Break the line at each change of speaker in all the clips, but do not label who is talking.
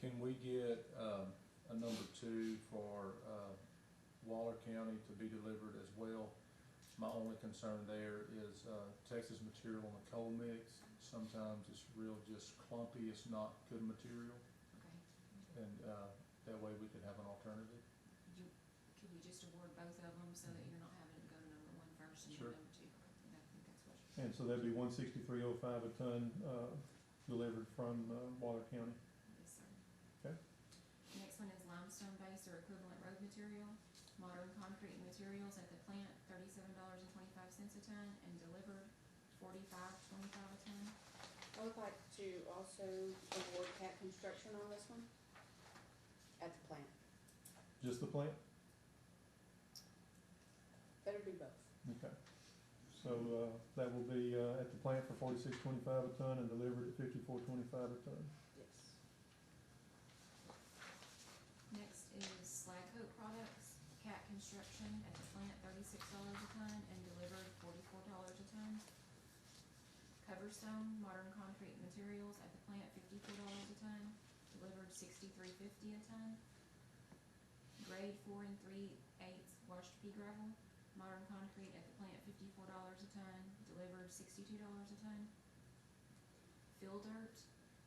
Can we get, um, a number two for, uh, Waller County to be delivered as well? My only concern there is, uh, Texas material on the coal mix, sometimes it's real just clumpy, it's not good material.
Okay,
And, uh, that way we could have an alternative.
you, could we just award both of them so that you're not having to go to number one first and
Sure.
then number two? I think that's what.
And so that'd be one sixty-three oh five a ton, uh, delivered from, uh, Waller County.
Yes, sir.
Okay.
Next one is limestone base or equivalent road material, modern concrete materials at the plant, thirty-seven dollars and twenty-five cents a ton, and delivered forty-five twenty-five a ton.
I would like to also award Cat Construction on this one at the plant.
Just the plant?
Better do both.
Okay. So, uh, that will be, uh, at the plant for forty-six twenty-five a ton and delivered at fifty-four twenty-five a ton.
Yes.
Next is slag coat products, cat construction at the plant, thirty-six dollars a ton, and delivered forty-four dollars a ton. Coverstone, modern concrete materials at the plant, fifty-four dollars a ton, delivered sixty-three fifty a ton. Grade four and three eighths washed pea gravel, modern concrete at the plant, fifty-four dollars a ton, delivered sixty-two dollars a ton. Fill dirt,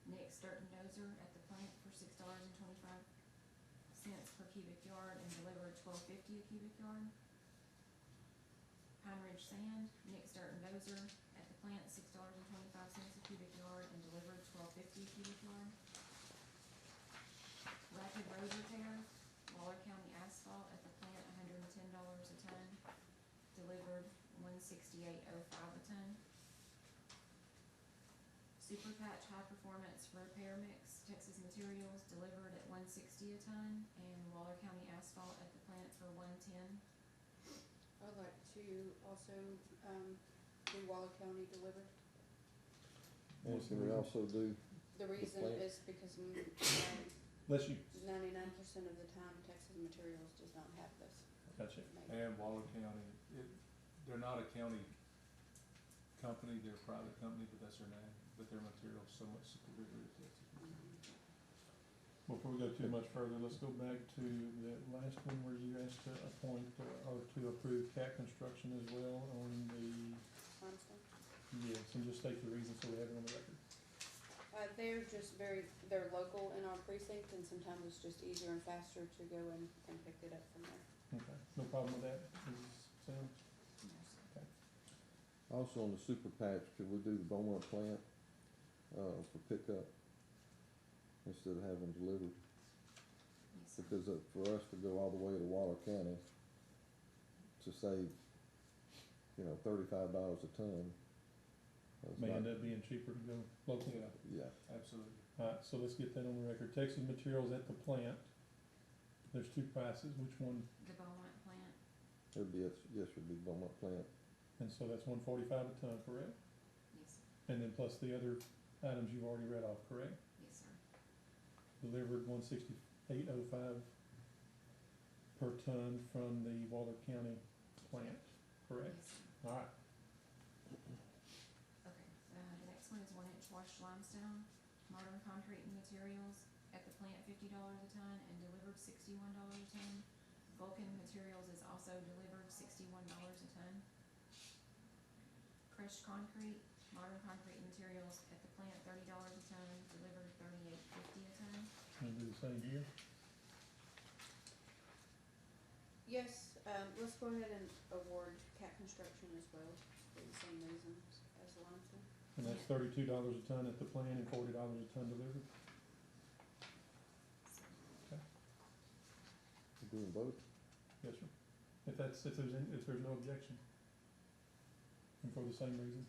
Nick's dirt and dozer at the plant for six dollars and twenty-five cents per cubic yard and delivered twelve fifty a cubic yard. Pine Ridge Sand, Nick's Dirt and Dozer at the plant, six dollars and twenty-five cents a cubic yard and delivered twelve fifty a cubic yard. Rapid Road Repair, Waller County Asphalt at the plant, hundred and ten dollars a ton, delivered one sixty-eight oh five a ton. Super Patch High Performance Repair Mix, Texas Materials, delivered at one sixty a ton, and Waller County Asphalt at the plant for one ten.
I would like to also, um, do Waller County delivered.
Well, can
Mm-hmm.
we also do,
The reason
plant.
is because uh,
Unless you,
ninety-nine percent of the time Texas Materials does not have this.
gotcha, and Waller County, it, they're not a county company, they're a private company, but that's their name, but their material's so much superior to Texas.
Mm-hmm.
Before we go too much further, let's go back to that last one where you asked to appoint uh, or to approve cat construction as well on the,
Limestone.
yes, and just state the reason so we have it on the record.
Uh, they're just very, they're local in our precinct and sometimes it's just easier and faster to go and, and pick it up from there.
Okay, no problem with that, is, Sam?
also on the super patch, could we do the Beaumont plant, uh, for pickup? Instead of having delivered,
Yes, sir.
because uh, for us to go all the way to Waller County to save, you know, thirty-five dollars a ton. that's
May end
not-
up being cheaper to go locally.
Yeah,
Absolutely. Alright, so let's get that on the record. Texas Materials at the plant. There's two prices, which one,
The Beaumont plant,
it'd be, yes, yes, it'd be Beaumont plant,
and so that's one forty-five a ton, correct?
yes,
And then plus the other items you've already read off, correct?
yes, sir.
Delivered one sixty-eight oh five per ton from the Waller County plant, correct?
Yes, sir.
Alright,
Okay, uh, the next one is one inch washed limestone, modern concrete and materials, at the plant fifty dollars a ton and delivered sixty-one dollars a ton. Vulcan Materials is also delivered sixty-one dollars a ton. Crushed concrete, modern concrete materials, at the plant thirty dollars a ton, delivered thirty-eight fifty a ton.
gonna do the same here.
Yes, um, let's go ahead and award Cat Construction as well, for the same reasons as the limestone.
And that's thirty-two dollars a ton at the plant and forty dollars a ton delivered.
we're doing both,
Yes, sir. If that's, if there's, an- if there's no objection. And for the same reason.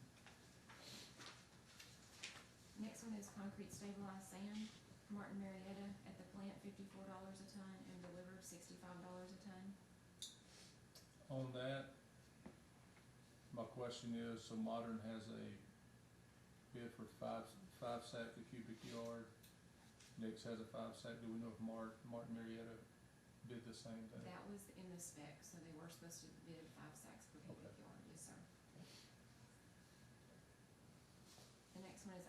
Next one is concrete stabilized sand, Martin Marietta, at the plant fifty-four dollars a ton and delivered sixty-five dollars a ton.
On that, my question is, so Modern has a bid for five, five sack a cubic yard. Nix has a five sack, do we know if Mart, Martin Marietta did the same thing?
That was in the spec, so they were supposed to bid five sacks per cubic yard, yes, sir. The next one is